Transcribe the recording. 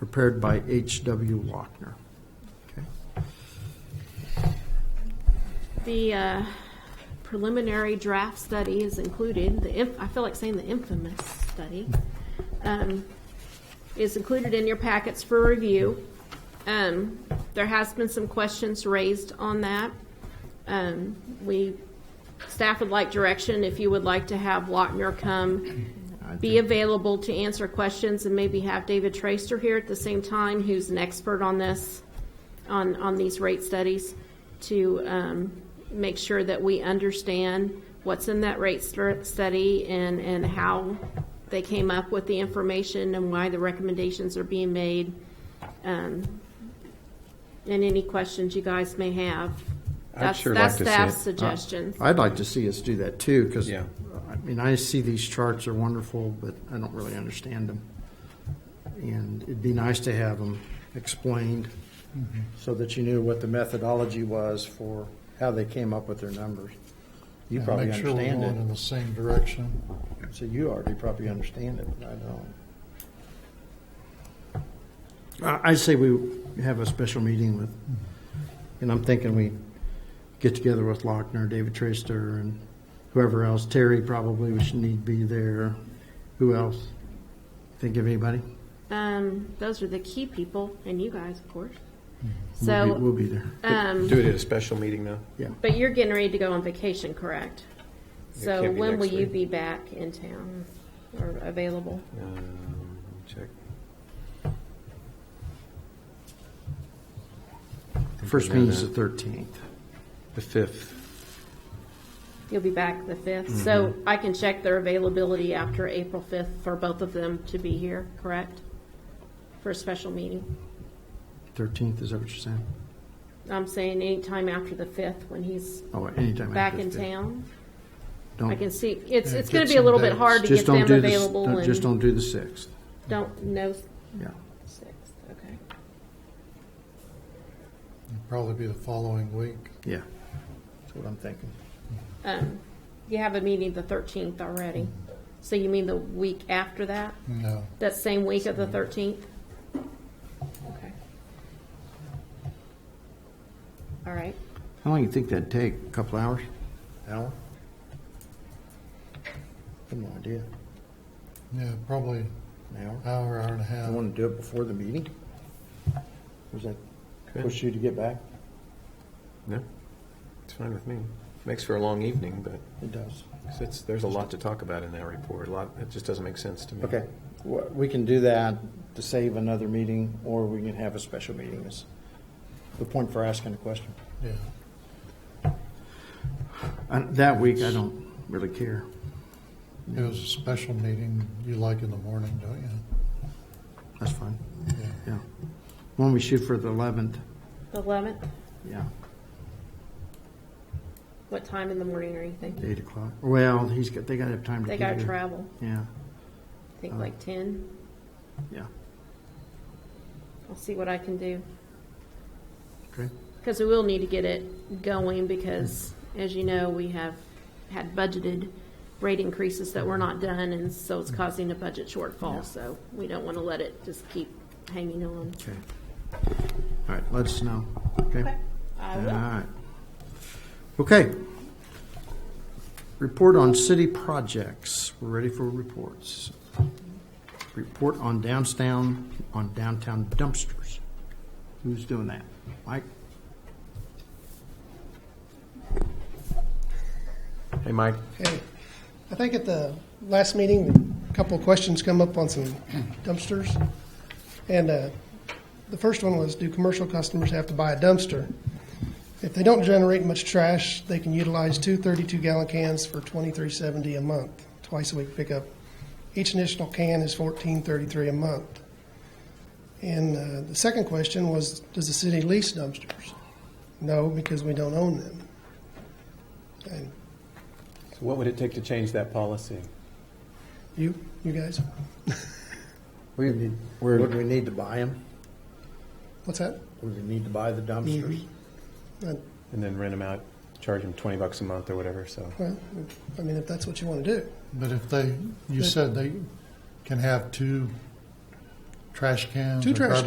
prepared by H.W. Lochner. Okay. The uh, preliminary draft study is included, the, inf- I feel like saying the infamous study, um, is included in your packets for review. Um, There has been some questions raised on that. Um, We, staff would like direction if you would like to have Lochner come be available to answer questions and maybe have David Traster here at the same time, who's an expert on this on, on these rate studies to um, make sure that we understand what's in that rate stu- study and, and how they came up with the information and why the recommendations are being made. um, And any questions you guys may have. That's- sure like to see it. Uh, That's staff's suggestions. I'd like to see us do that too, because, Yeah. I mean, I see these charts are wonderful, but I don't really understand them. And it'd be nice to have them explained Mm-hmm. so that you knew what the methodology was for how they came up with their numbers. You and probably make sure we're understand going in it. the same direction. So you already probably understand it, but I don't. I- I'd say we have a special meeting with, and I'm thinking we get together with Lochner, David Trister, and whoever else, Terry probably, we should need be there. Who else? Think of anybody? uh, Um, Those are the key people, and you guys, of course. mm-hmm. We'll be- So, We'll be there, um, Do it at a special meeting though? yeah. but you're getting ready to go on vacation, correct? So can't be when will next you week. be back in town or available? Um, Check. First meeting's the 13th. The fifth. You'll be back the 5th, Mm-hmm. so I can check their availability after April 5th for both of them to be here, correct? For a special meeting. 13th, is that what you're saying? I'm saying anytime after the 5th when he's Oh, anytime. back after in the fifth. town. Don't- I can see, it's, Yeah, it's going get to be a some little bit dates. hard to Just get don't them do this, available don't- just and don't do the 6th, don't know yeah. 6th, okay. It'd probably be the following week. Yeah, that's what I'm thinking. Um, You have a meeting the 13th already, so you mean the week after that? No, That same week of the 13th? Okay. All right. How long you think that'd take? A couple hours? Hour? I have no idea. yeah, probably An hour? hour, hour and a I half. want to do it before the meeting. Was that push you to get back? No, it's fine with me. Makes for a long evening, but It does. 'cause it's, there's a lot to talk about in that report. A lot, it just doesn't make sense to me. Okay, Wha- we can do that to save another meeting, or we can have a special meeting. Is the point for asking the question. Yeah, Uh, That week, I don't really care. it was a special meeting. You like in the morning, don't you? That's fine, Yeah. yeah. When we shoot for the 11th, The 11th, yeah, what time in the morning are you thinking? 8 o'clock. Well, he's got, they got to have time to They get got to here. travel, Yeah, I think like 10. yeah, I'll see what I can do. okay. Because we will need to get it going because, as you know, we have had budgeted rate increases that were not done, and so it's causing a budget shortfall. So we don't want to let it just keep hanging on. Okay. All right, let us know, okay? I All will. right. Okay. Report on city projects. We're ready for reports. Report on downtown, on downtown dumpsters. Who's doing that? Mike? Hey, Mike, Okay. I think at the last meeting, a couple of questions come up on some dumpsters. And uh, the first one was, do commercial customers have to buy a dumpster? If they don't generate much trash, they can utilize two 32-gallon cans for $23.70 a month, twice a week pickup. Each additional can is $14.33 a month. And uh, the second question was, does the city lease dumpsters? No, because we don't own them. And so what would it take to change that policy? you, you guys? We need, would we need to buy them? What's that? Would we need to buy the dumpsters? Uh, And then rent them out, charge them twenty bucks a month or whatever, so. Well, I mean, if that's what you want to do. But if they, you said they can have two trash cans Two or trash garbage